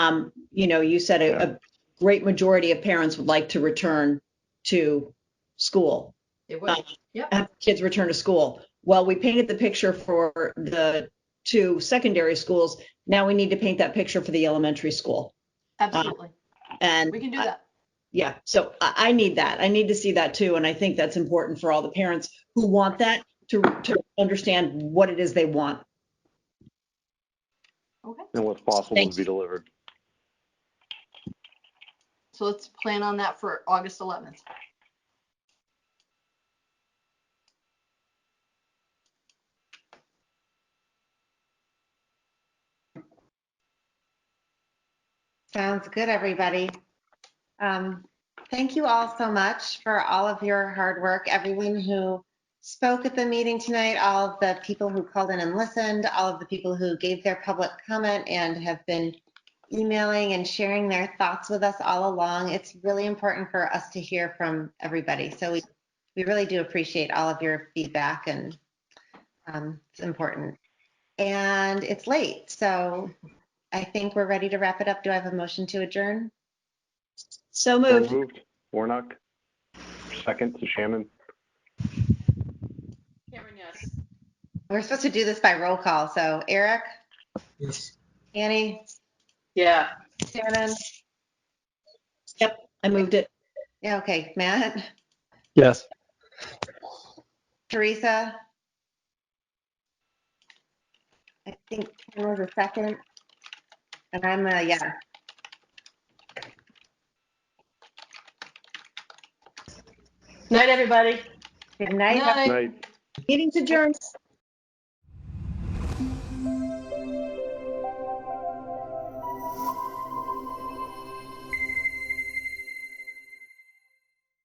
um, you know, you said a, a great majority of parents would like to return to school, It would, have kids return to school. Well, we painted the picture for the two secondary schools. Now we need to paint that picture for the elementary school. absolutely. And We can do I- that. Yeah, so I, I need that. I need to see that too. And I think that's important for all the parents who want that to, to understand what it is they want. Okay, and what's possible Thank to be delivered. so let's plan on that for August 11th. Sounds good, everybody. Um, Thank you all so much for all of your hard work, everyone who spoke at the meeting tonight, all of the people who called in and listened, all of the people who gave their public comment and have been emailing and sharing their thoughts with us all along. It's really important for us to hear from everybody. So we, we really do appreciate all of your feedback and um, it's important. And it's late, so I think we're ready to wrap it up. Do I have a motion to adjourn? So So moved. Moved. Warnock. Second to Shannon. We're supposed to do this by roll call, so Eric, Yes. Annie, Yeah. Shannon, I moved it. yeah, okay, Matt, Yes. Teresa. I think Ken was a second, and I'm a yeah. Night, everybody. Good night. Night. Night. Meeting's adjourned.